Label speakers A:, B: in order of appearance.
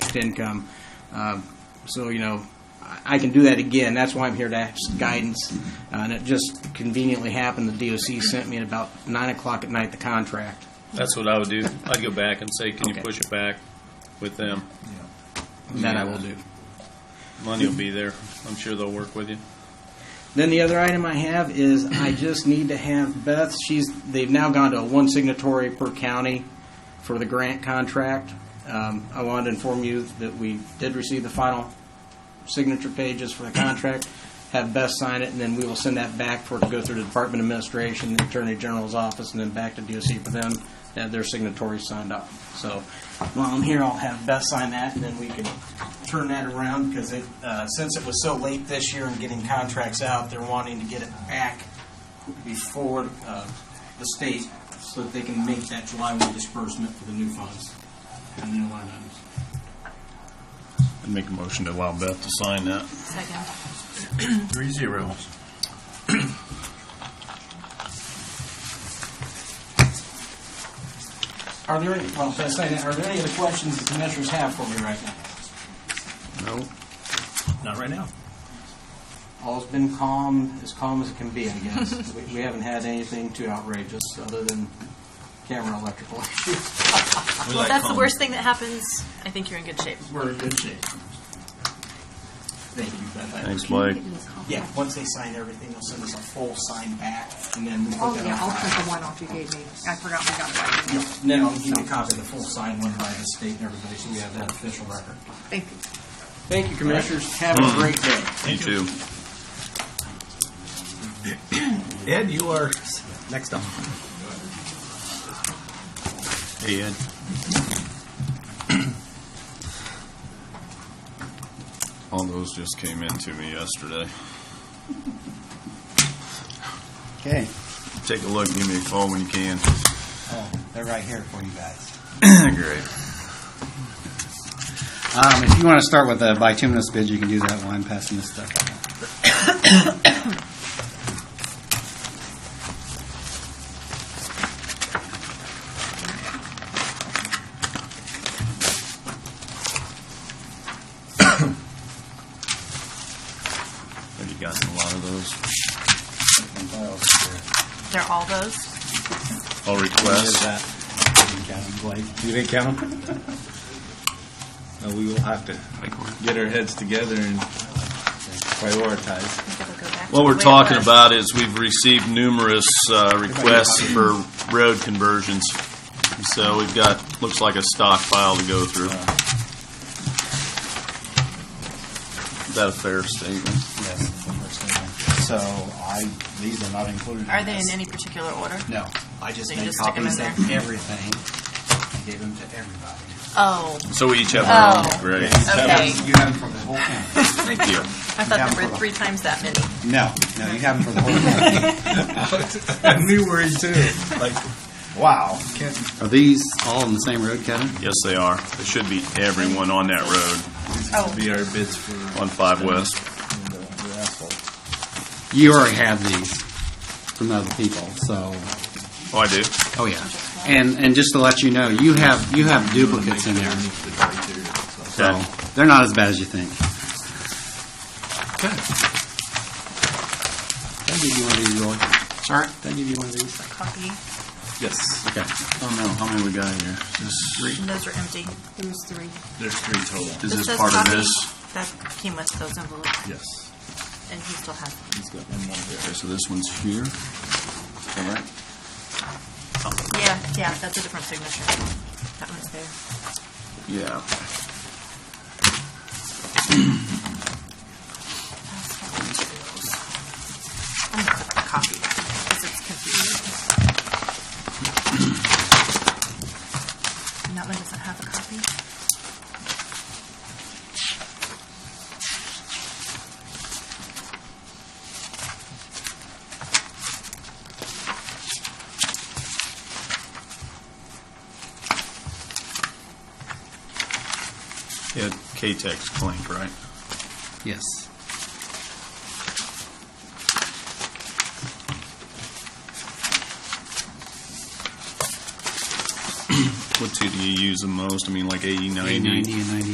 A: taxed income. Um, So, you know, I- I can do that again, that's why I'm here to ask guidance. Uh, And it just conveniently happened, the DOC sent me at about 9 o'clock at night the contract.
B: That's what I would do. I'd go back and say, can you
A: Okay.
B: push it back with them?
A: That I will do.
B: Money will be there. I'm sure they'll work with you.
A: Then the other item I have is I just need to have Beth, she's, they've now gone to a one signatory per county for the grant contract. Um, I wanted to inform you that we did receive the final signature pages for the contract. Have Beth sign it, and then we will send that back for it to go through the Department Administration, the Attorney General's Office, and then back to DOC for them to have their signatories signed up. So while I'm here, I'll have Beth sign that, and then we can turn that around, because it, uh, since it was so late this year in getting contracts out, they're wanting to get it back before uh, the state, so that they can make that July 1 disbursement for the new funds and new line items.
B: I'd make a motion to allow Beth to sign that.
C: Second.
B: Three zero.
A: Are there any, well, should I say that, are there any other questions that the commissioners have for me right now?
B: No, not right now.
A: All's been calm, as calm as it can be, I guess. We- We haven't had anything too outrageous, other than camera electrical issues.
C: Well, if that's
B: um,
C: the worst thing that happens, I think you're in good shape.
A: We're in good shape. Thank you, Beth. I-
B: Thanks, Blake.
A: Yeah, once they sign everything, they'll send us a full sign back, and then we'll
D: Oh,
A: put
D: yeah,
A: that
D: I'll
A: on file.
D: print the one off you gave me. I forgot we got it. by email.
A: Then I'll give you a copy of the full sign one by the state and everybody, so we have that official record.
D: Thank you.
A: Thank you, commissioners. Have a great day.
B: You too.
E: Ed, you are next up.
B: Hey, Ed. All those just came in to me yesterday.
F: Okay,
B: Take a look, give me a call when you can.
F: oh, they're right here for you guys.
B: Great.
F: Um, if you want to start with a bituminous bid, you can do that while I'm passing this stuff.
B: Have you gotten a lot of those?
C: They're all those.
B: All requests?
E: You didn't count them? No, we will have to get our heads together and prioritize.
C: I think it'll go back to
B: What
C: the
B: we're
C: way it
B: talking
C: was.
B: about is we've received numerous uh, requests for road conversions. So we've got, looks like a stockpile to go through. Is that a fair statement?
F: Yes, it's the first thing. So I, these are not included.
C: Are they in
F: this.
C: any particular order?
F: No, I just
C: So you
F: made
C: just stick 'em in
F: copies of
C: there?
F: everything. I Gave them to everybody.
C: Oh,
B: So we each have our
C: Oh.
B: own. Great.
C: okay.
F: You have them for the whole county.
B: Thank you.
C: I thought there were three times that many.
F: No, no, you have them for the whole county.
E: I knew where you too. Like,
F: Wow. Are these all in the same road, Kevin?
B: Yes, they are. There should be everyone on that road,
C: Oh,
E: be our bids for
B: on 5 West.
E: the the asphalt.
F: You already have these from other people, so.
B: Oh, I do?
F: Oh, yeah. And, and just to let you know, you have, you have duplicates in there, so
B: Okay.
F: they're not as bad as you think. Did I give you one of these, Roy? Sorry? Did I give you one of these?
C: a copy.
E: Yes,
F: Okay.
B: Oh, no. How many we got here?
C: And those are empty.
D: There's three.
E: there's three total.
B: Is this
C: says
B: part of
C: copy.
B: this?
C: That came with those envelopes,
E: Yes.
C: and he still has. them.
E: He's got one more there.
B: Okay, so this one's here. All right.
C: Yeah, yeah, that's a different signature. That one's there.
B: Yeah.
C: I'm gonna copy that because it's confusing. And that one doesn't have a copy.
B: Yeah, K-Tech's claimed, right?
F: Yes.
B: What two do you use the most? I mean, like 80, 90?
F: A90 and 90